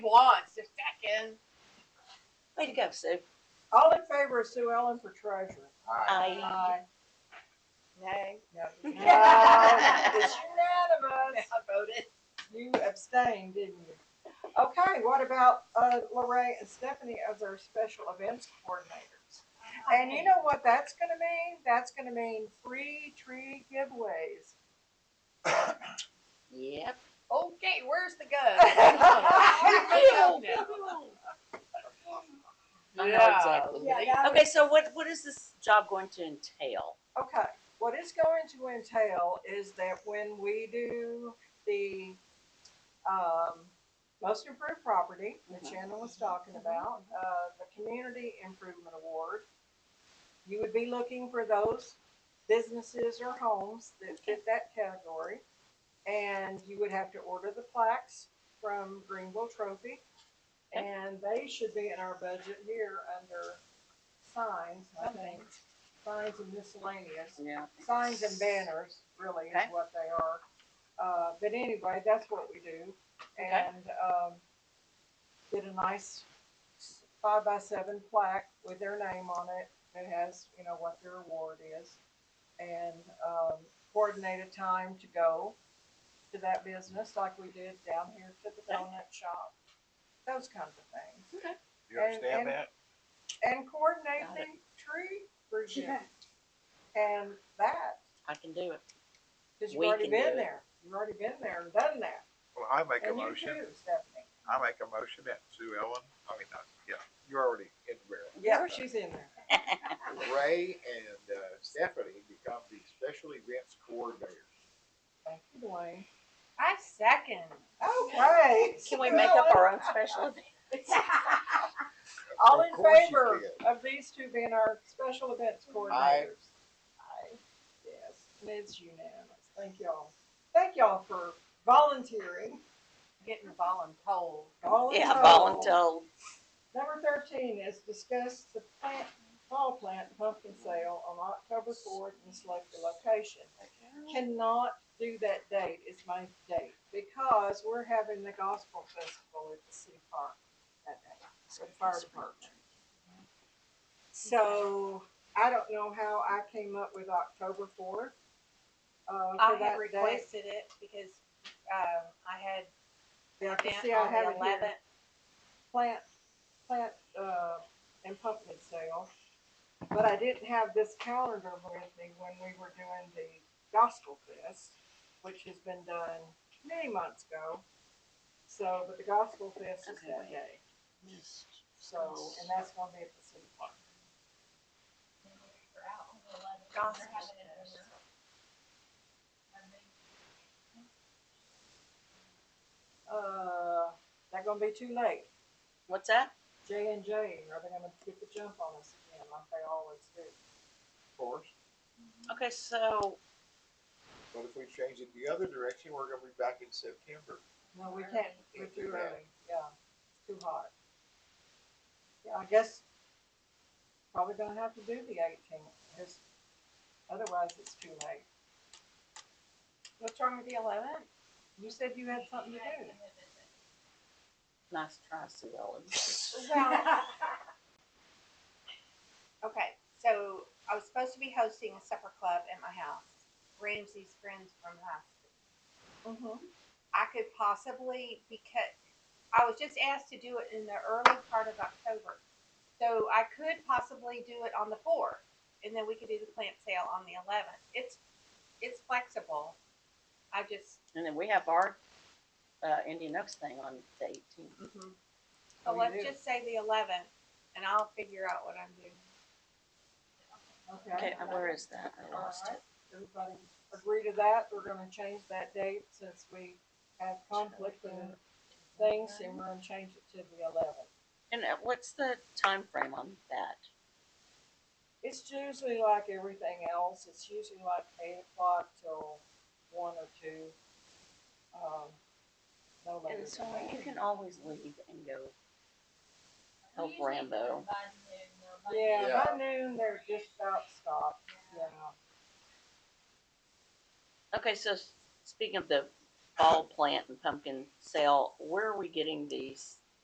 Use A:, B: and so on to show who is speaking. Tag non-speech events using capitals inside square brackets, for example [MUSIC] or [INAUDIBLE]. A: wants. If second,
B: Way to go, Sue.
C: All in favor of Sue Ellen for treasurer?
B: I,
A: nay, no.
C: No, It's unanimous.
A: I voted.
C: You abstained, didn't you? Okay, what about, uh, Lorraine and Stephanie as our special events coordinators? And you know what that's gonna mean? That's gonna mean free tree giveaways.
B: yep.
A: Okay, where's the
C: [LAUGHS]
A: gun?
B: I know
A: Yeah.
B: exactly.
C: Yeah,
B: what- Okay, so what, what is this job going to entail?
C: Okay, what it's going to entail is that when we do the, um, most improved property that Shannon was talking about, uh, the Community Improvement Award, you would be looking for those businesses or homes that fit that category. And you would have to order the plaques from Greenville Trophy.
B: Okay.
C: And they should be in our budget here under signs, I think, signs and miscellaneous
B: Yeah.
C: signs and banners really is
B: Okay.
C: what they are. Uh, but anyway, that's what we do.
B: Okay.
C: And, um, did a nice five by seven plaque with their name on it that has, you know, what their award is. And, um, coordinate a time to go to that business like we did down here to the donut shop. Those kinds of things.
D: You understand
C: And-
D: that?
C: And coordinate
B: Got
C: the tree review. And that
B: I can do it.
C: Cause you've
B: We
C: already
B: can do
C: been
B: it.
C: there. You've already been there and done that.
D: Well, I make a
C: And you
D: motion,
C: too, Stephanie.
D: I make a motion that Sue Ellen, I mean, not, yeah, you're already in the barrel.
C: Yeah, she's in there.
D: Ray and uh, Stephanie become the special events coordinators.
C: Thank you, Dwayne.
A: I second.
C: Okay.
B: [LAUGHS] Can we make up our own special [LAUGHS] event?
C: [LAUGHS] All
D: Of
C: in
D: course you
C: favor
D: can.
C: of these two being our special events coordinators? Aye. Yes, and it's unanimous. Thank y'all. Thank y'all for volunteering.
A: Getting voluntold.
B: Yeah,
C: Voluntold.
B: voluntold.
C: Number thirteen is discuss the plant, fall plant pumpkin sale on October fourth and select the location. Cannot do that date, it's my date, because we're having the gospel festival at the city park that day, with the fire department. So I don't know how I came up with October fourth. Uh,
E: I
C: for
E: had
C: that date.
E: requested it because, um, I had
C: Yeah,
E: an
C: see,
E: event
C: I
E: on
C: have
E: the
C: it here.
E: eleventh.
C: plant, plant, uh, and pumpkin sale. But I didn't have this calendar with me when we were doing the gospel fest, which has been done many months ago. So, but the gospel fest is that
B: Okay.
C: day, so, and that's gonna be at the city park. Uh, that gonna be too late.
B: What's that?
C: J and J, are they gonna get the jump on us again like they always do?
D: course,
C: Mm-hmm.
B: Okay, so,
D: but if we change it the other direction, we're gonna be back in September.
C: No, we can't, we're too early, yeah, it's too hot. Yeah, I guess probably gonna have to do the eighteenth, because otherwise it's too late.
E: What's wrong with the eleventh?
C: You said you had something to do.
B: nice try, Sue Ellen.
E: Well, okay, so I was supposed to be hosting a supper club at my house, Ramsey's friends from high school.
C: Mm-hmm.
E: I could possibly because I was just asked to do it in the early part of October. So I could possibly do it on the fourth and then we could do the plant sale on the eleventh. It's it's flexible. I just
B: [LAUGHS] And then we have our, uh, Indian Oaks thing on the eighteenth.
E: so let's just say the eleventh and I'll figure out what I'm doing.
B: Okay,
C: Okay,
B: uh, where is that? I lost it.
C: alright, everybody agree to that, we're gonna change that date since we have conflict and things, and we're gonna change it to the eleventh.
B: And uh, what's the time frame on that?
C: It's usually like everything else. It's usually like eight o'clock till one or two. Um, no later.
B: And so
C: than that.
B: you can always leave and go help Rambo.
C: Yeah,
D: Yeah.
C: by noon they're just about stopped. Yeah.
B: Okay, so s- speaking of the fall plant and pumpkin sale, where are we getting these